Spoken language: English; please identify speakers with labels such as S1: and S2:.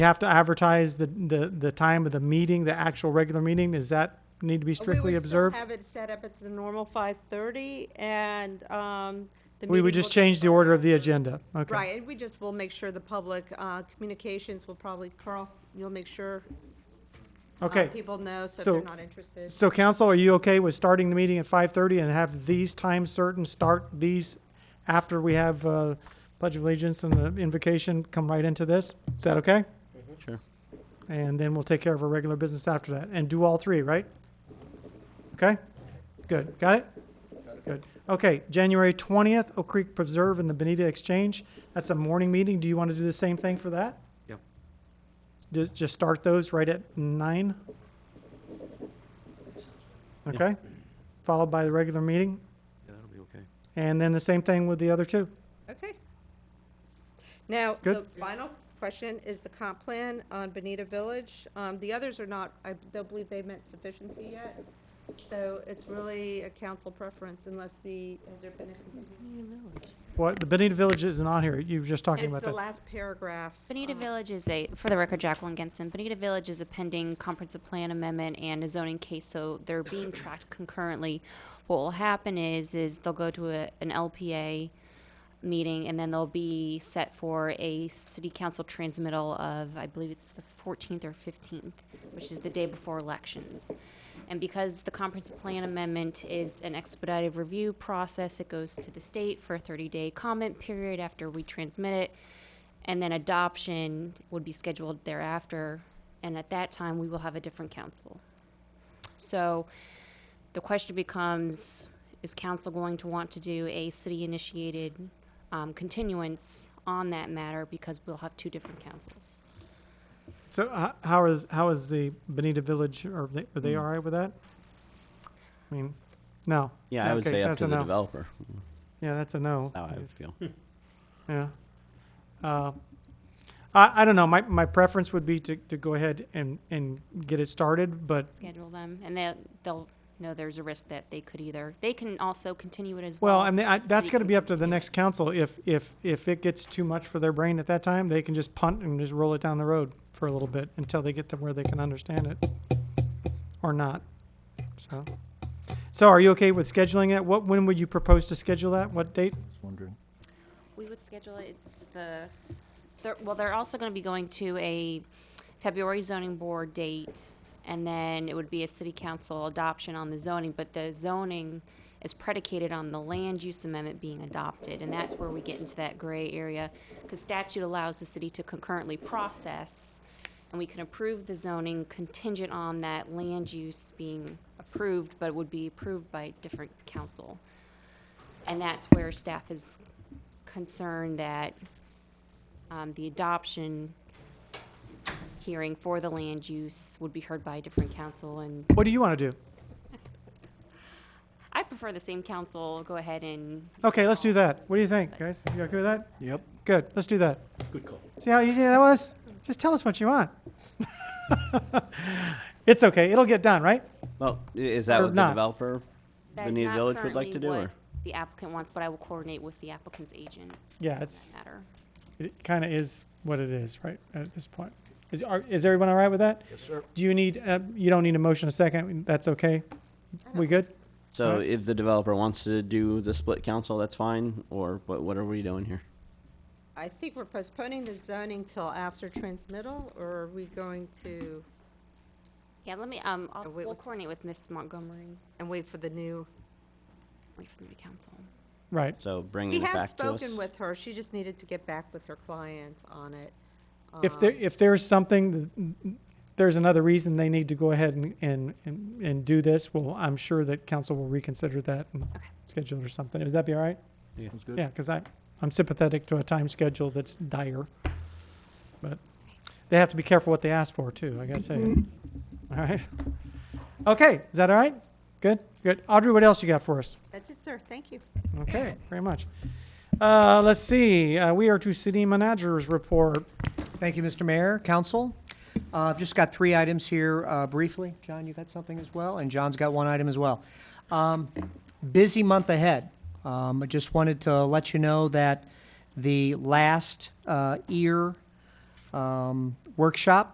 S1: You have to advertise the, the, the time of the meeting, the actual regular meeting. Does that need to be strictly observed?
S2: We would still have it set up, it's the normal 5:30, and um, the meeting
S1: We would
S2: will
S1: just change the order of the agenda. Okay.
S2: Right, and we just will make sure the public uh, communications will probably, Carl, you'll make sure uh,
S1: Okay.
S2: people know, so if
S1: So-
S2: they're not interested.
S1: So council, are you okay with starting the meeting at 5:30 and have these times certain, start these after we have uh, Pledge of Allegiance and the invocation, come right into this? Is that okay?
S3: Sure.
S1: And then we'll take care of our regular business after that and do all three, right? Okay? Good. Got it? Good. Okay, January 20th, Oak Creek Preserve and the Benita Exchange. That's a morning meeting. Do you want to do the same thing for that?
S3: Yep.
S1: Ju- Just start those right at nine? Okay? Followed by the regular meeting?
S3: Yeah, that'll be okay.
S1: And then the same thing with the other two?
S2: Okay. Now, the
S1: Good.
S2: final question is the comp plan on Bonita Village. Um, The others are not, I don't believe they've met sufficiency yet, so it's really a council preference unless the, has there been a?
S1: What, the Benita Village isn't on here. You were just talking
S2: It's
S1: about that.
S2: the last paragraph.
S4: Bonita
S2: um,
S4: Village is a, for the record, Jacqueline Genson, Bonita Village is a pending comprehensive plan amendment and a zoning case, so they're being tracked concurrently. What will happen is, is they'll go to a, an LPA meeting, and then they'll be set for a city council transmittal of, I believe it's the fourteenth or fifteenth, which is the day before elections. And because the comprehensive plan amendment is an expedited review process, it goes to the state for a thirty-day comment period after we transmit it. And then adoption would be scheduled thereafter, and at that time, we will have a different council. So the question becomes, is council going to want to do a city-initiated um, continuance on that matter because we'll have two different councils?
S1: So h- how is, how is the Benita Village, are they, are
S3: Hmm.
S1: they all right with that? I mean, no.
S3: Yeah, I would
S1: Okay,
S3: say up
S1: that's
S3: to
S1: a
S3: the
S1: no.
S3: developer,
S1: Yeah, that's a no.
S3: how I would feel.
S1: Yeah. Uh, I, I don't know, my, my preference would be to, to go ahead and, and get it started, but,
S4: Schedule them, and they'll, they'll know there's a risk that they could either, they can also continue it as well.
S1: well, I mean, I, that's
S4: City
S1: gonna
S4: can
S1: be up to the
S4: continue it.
S1: next council. If, if, if it gets too much for their brain at that time, they can just punt and just roll it down the road for a little bit until they get to where they can understand it. Or not, so. So are you okay with scheduling it? What, when would you propose to schedule that? What date?
S5: wondering.
S4: We would schedule it, it's the, they're- well, they're also going to be going to a February zoning board date, and then it would be a city council adoption on the zoning, but the zoning is predicated on the land use amendment being adopted, and that's where we get into that gray area, because statute allows the city to concurrently process, and we can approve the zoning contingent on that land use being approved, but it would be approved by a different council. And that's where staff is concerned that um, the adoption hearing for the land use would be heard by a different council, and
S1: What do you wanna do?
S4: I prefer the same council go ahead and
S1: Okay, let's do that. What do you think, guys? You okay with that?
S5: Yep.
S1: Good, let's do that.
S3: Good call.
S1: See how easy that was? Just tell us what you want. it's okay, it'll get done, right?
S3: Well, i- is that
S1: Or
S3: what the
S1: not.
S3: developer,
S4: that's
S3: Benita
S4: not
S3: Village would like
S4: currently
S3: to do,
S4: what
S3: or?
S4: The applicant wants, but I will coordinate with the applicant's agent
S1: Yeah,
S4: on
S1: it's
S4: that matter.
S1: it kind of is what it is, right, at this point. Is, are, is everyone all right with that? Yes, sir. Do you need, uh, you don't need a motion a second, that's okay? We good?
S3: So
S1: Right.
S3: if the developer wants to do the split council, that's fine, or what, what are we doing here?
S2: I think we're postponing the zoning till after transmittal, or are we going to,
S4: Yeah, let me, um, I'll-
S2: Uh, wait,
S4: we'll
S2: wait.
S4: coordinate with Miss Montgomery,
S2: and wait for the new?
S4: wait for the new council.
S1: Right,
S3: So
S2: We
S3: bringing it
S2: have
S3: back to us?
S2: spoken with her, she just needed to get back with her client on it.
S1: if there,
S2: Um,
S1: if there's something, th- there's another reason they need to go ahead and, and, and, and do this, well, I'm sure that council will reconsider that and
S4: Okay.
S1: schedule it or something, would that be all right?
S5: Sounds good.
S1: Yeah, because I, I'm sympathetic to a time schedule that's dire. But they have to be careful what they ask for, too, I gotta tell you. All right. Okay, is that all right? Good, good. Audrey, what else you got for us?
S2: That's it, sir, thank you.
S1: Okay, very much. Uh, let's see, uh, we are to city managers report.
S6: Thank you, Mr. Mayor, Council. Uh, I've just got three items here uh, briefly. John, you got something as well, and John's got one item as well. Um, Busy month ahead. Um, I just wanted to let you know that the last uh, ear um, workshop